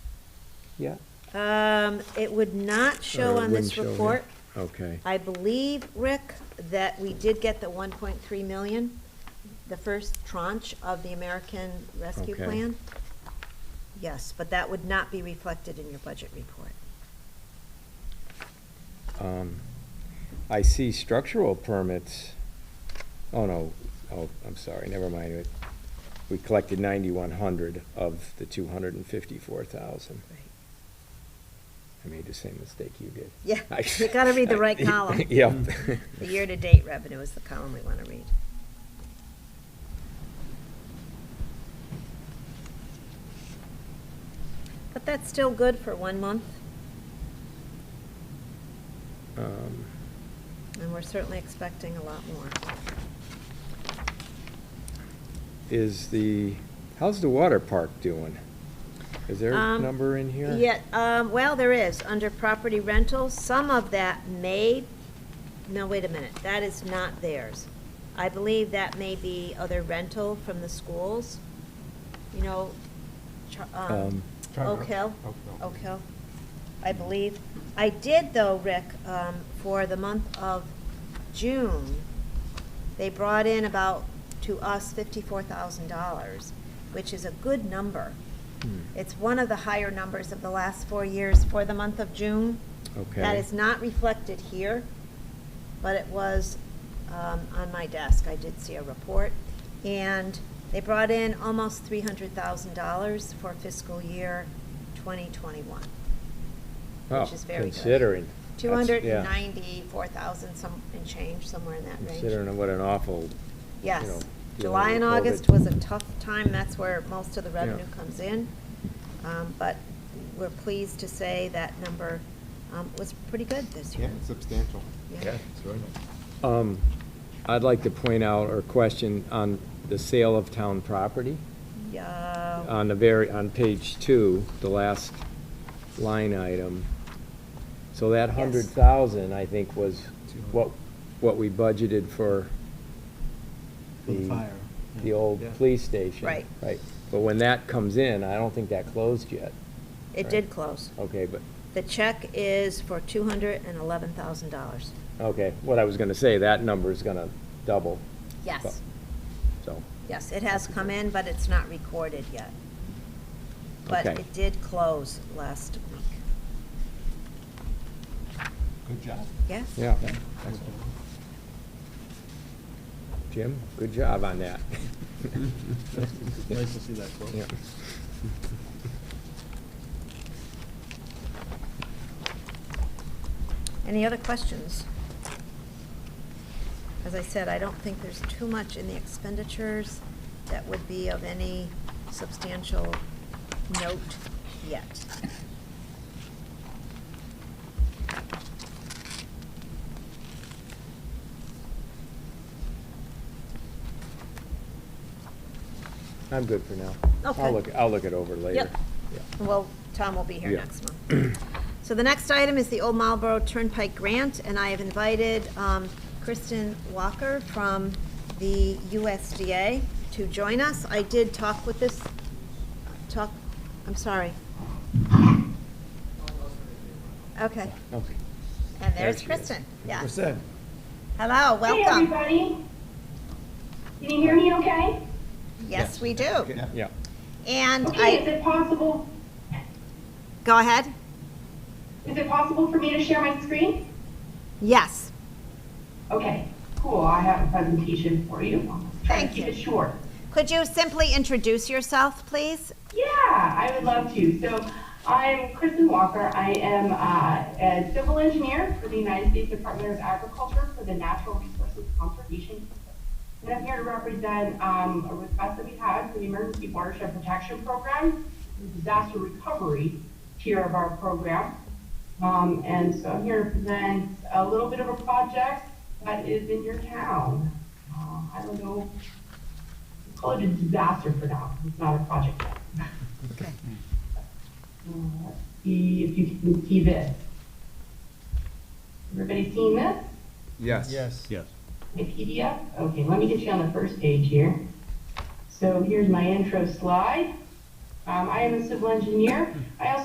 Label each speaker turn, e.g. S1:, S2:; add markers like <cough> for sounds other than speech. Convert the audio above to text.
S1: Yeah.
S2: Um, it would not show
S3: Or it
S2: on this
S3: wouldn't show here.
S2: report.
S3: Okay.
S2: I believe, Rick, that we did get the one point three million, the first tranche of the American Rescue
S3: Okay.
S2: Plan. Yes, but that would not be reflected in your budget report.
S1: Um, I see structural permits. Oh, no, oh, I'm sorry, never mind. It- We collected ninety-one hundred of the two hundred and fifty-four thousand. I made the same mistake you did.
S2: Yeah,
S1: <laughs> I-
S2: you gotta read the right column.
S1: <laughs> Yep.
S2: The year-to-date revenue is the column we want to read. But that's still good for one month,
S3: Um,
S2: and we're certainly expecting a lot more.
S1: Is the, how's the water park doing? Is there a
S2: Um,
S1: number in here?
S2: Yeah, um, well, there is, under property rentals, some of that may, no, wait a minute, that is not theirs. I believe that may be other rental from the schools, you know, Char- um,
S1: Um,
S2: Oak Hill.
S4: Oak Hill.
S2: Oak Hill, I believe. I did though, Rick, um, for the month of June, they brought in about, to us, fifty-four thousand dollars, which is a good number. It's one of the higher numbers of the last four years for the month of June. That
S1: Okay.
S2: is not reflected here, but it was um, on my desk. I did see a report. And they brought in almost $300,000 for fiscal year 2021,
S1: Oh,
S2: which is very good.
S1: Considering. That's- yeah.
S2: 294,000 some, and change, somewhere in that range.
S1: Considering what an awful, you know,
S2: Yes.
S1: dealing
S2: July and
S1: with COVID.
S2: August was a tough time. That's where most of the
S3: Yeah.
S2: revenue comes in. Um, But we're pleased to say that number um, was pretty good this
S4: Yeah,
S2: year.
S4: it's substantial.
S2: Yeah.
S4: It's very nice.
S1: Um, I'd like to point out or question on the sale of town property.
S2: Yeah.
S1: On the very, on page two, the last line item. So that
S2: Yes.
S1: hundred thousand, I think, was what, what we budgeted for
S5: For the fire.
S1: the old
S5: Yeah.
S1: police station.
S2: Right.
S1: Right. But when that comes in, I don't think that closed yet.
S2: It did close.
S1: Okay, but,
S2: The check is for two hundred and eleven thousand dollars.
S1: okay, what I was gonna say, that number's gonna double,
S2: Yes,
S1: so.
S2: yes, it has come in, but it's not recorded yet. But
S1: Okay.
S2: it did close last week.
S4: Good job.
S2: Yes?
S1: Yeah. Jim, good job on that.
S5: <laughs> Nice to see that quote.
S1: Yeah.
S2: Any other questions? As I said, I don't think there's too much in the expenditures that would be of any substantial note yet.
S1: I'm good for now.
S2: Okay.
S1: I'll look, I'll look it over later.
S2: Yep. Well, Tom will be here
S1: Yeah.
S2: next month. <clears throat> So the next item is the Old Marlboro Turnpike Grant, and I have invited um, Kristen Walker from the USDA to join us. I did talk with this, talk, I'm sorry. Okay,
S1: Okay.
S2: and
S1: There
S2: there's
S1: she is.
S2: Kristen, yeah.
S5: Percent.
S2: Hello,
S6: Hey,
S2: welcome.
S6: everybody. Can you hear me okay?
S2: Yes, we do.
S4: Yeah.
S1: Yeah.
S2: And
S6: Okay, is
S2: Mm, I,
S6: it possible,
S2: go ahead.
S6: is it possible for me to share my screen?
S2: Yes.
S6: Okay, cool, I have a presentation for you. Try
S2: Thank
S6: to keep
S2: you.
S6: it short.
S2: Could you simply introduce yourself, please?
S6: Yeah, I would love to. So I'm Kristen Walker. I am uh, a civil engineer for the United States Department of Agriculture for the Natural Resources Conservation. System. And I'm here to represent um, a request that we had for the Emergency Watershed Protection Program, the disaster recovery tier of our program. Um, and so I'm here to present a little bit of a project that is in your town. Uh, I don't know, call it a disaster for now. It's not a project yet.
S2: Okay.
S6: Uh, let's See if you can see this. Everybody seen this?
S4: Yes.
S5: Yes. Yes.
S6: The PDF? Okay, let me get you on the first page here. So here's my intro slide. Um, I am a civil engineer. I also